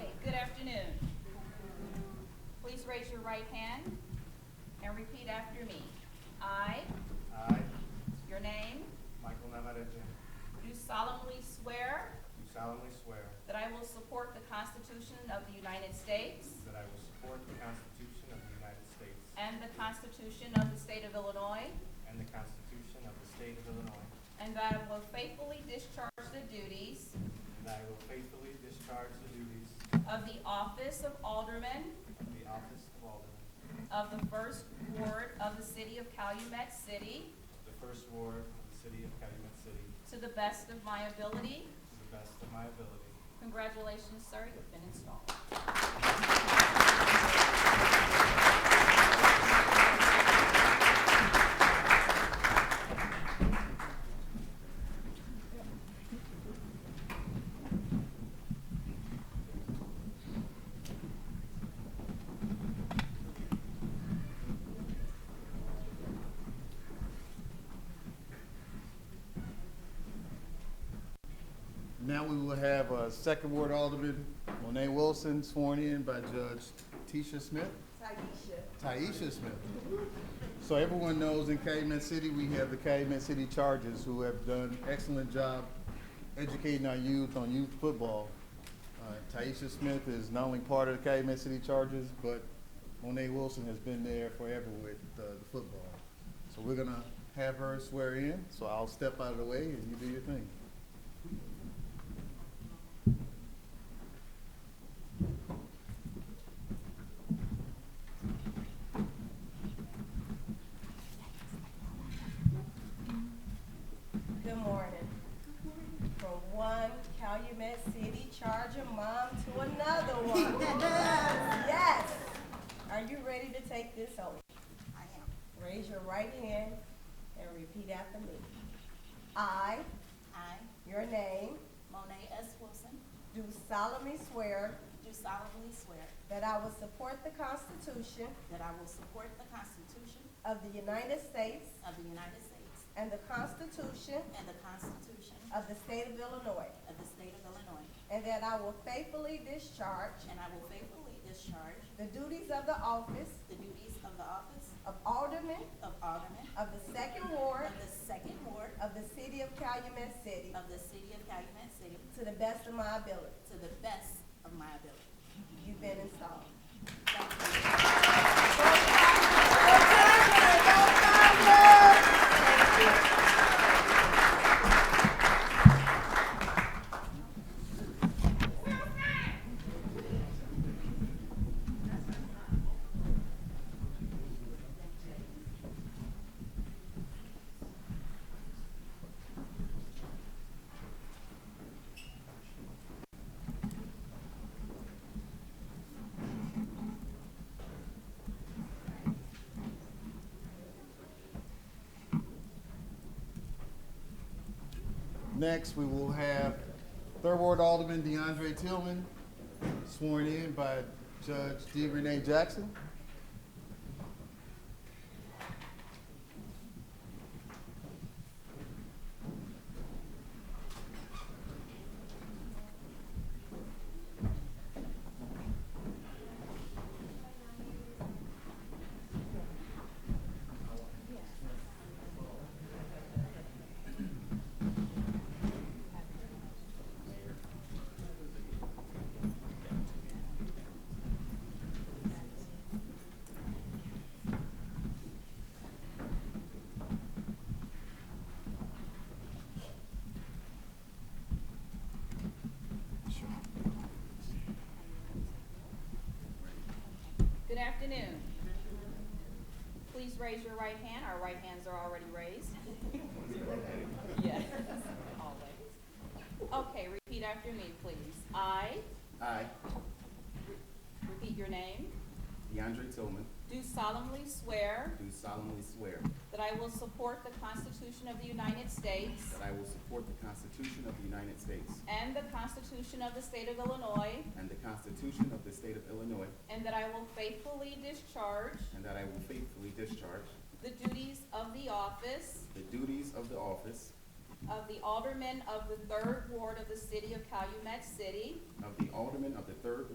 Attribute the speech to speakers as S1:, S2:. S1: right hand and repeat after me. I,
S2: I,
S1: your name,
S2: Michael Navarrete, do
S1: do solemnly swear
S2: solemnly swear
S1: that I will support the Constitution of the United States
S2: that I will support the Constitution of the United States
S1: and the Constitution of the State of Illinois,
S2: and the Constitution of the State of Illinois,
S1: and that I will faithfully discharge the duties
S2: and that I will faithfully discharge the duties
S1: of the office of Alderman
S2: of the office of Alderman
S1: of the First Ward of the City of Calumet City
S2: of the First Ward of the City of Calumet City
S1: to the best of my ability.
S2: to the best of my ability.
S1: Congratulations, sir, you've been installed.
S3: Now we will have uh, Second Ward Alderman Monet Wilson sworn in by Judge Tisha Smith. Taisha. Taisha Smith. So everyone knows in Calumet City, we have the Calumet City Chargers who have done excellent job educating our youth on youth football. Uh, Taisha Smith is not only part of the Calumet City Chargers, but Monet Wilson has been there forever with uh, the football. So we're gonna have her swear in, so I'll step out of the way and you do your thing.
S4: Good morning. From one Calumet City Charger mom to another one. Yes. Are you ready to take this oath?
S5: I am.
S4: Raise your right hand and repeat after me. I,
S5: I,
S4: your name,
S5: Monet S. Wilson,
S4: do solemnly swear
S5: do solemnly swear
S4: that I will support the Constitution
S5: that I will support the Constitution
S4: of the United States
S5: of the United States
S4: and the Constitution
S5: and the Constitution
S4: of the State of Illinois,
S5: of the State of Illinois,
S4: and that I will faithfully discharge
S5: and I will faithfully discharge
S4: the duties of the office
S5: the duties of the office
S4: of Alderman
S5: of Alderman
S4: of the Second Ward
S5: of the Second Ward
S4: of the City of Calumet City
S5: of the City of Calumet City
S4: to the best of my ability.
S5: to the best of my ability.
S4: You've been installed.
S5: Thank you.
S3: Next, we will have Third Ward Alderman DeAndre Tillman sworn in by Judge D. Renee Jackson.
S1: Good afternoon. Please raise your right hand. Our right hands are already raised. Yes, always. Okay, repeat after me, please. I,
S6: I,
S1: repeat your name,
S6: DeAndre Tillman,
S1: do solemnly swear
S6: do solemnly swear
S1: that I will support the Constitution of the United States
S6: that I will support the Constitution of the United States
S1: and the Constitution of the State of Illinois,
S6: and the Constitution of the State of Illinois,
S1: and that I will faithfully discharge
S6: and that I will faithfully discharge
S1: the duties of the office
S6: the duties of the office
S1: of the Alderman of the Third Ward of the City of Calumet City
S6: of the Alderman of the Third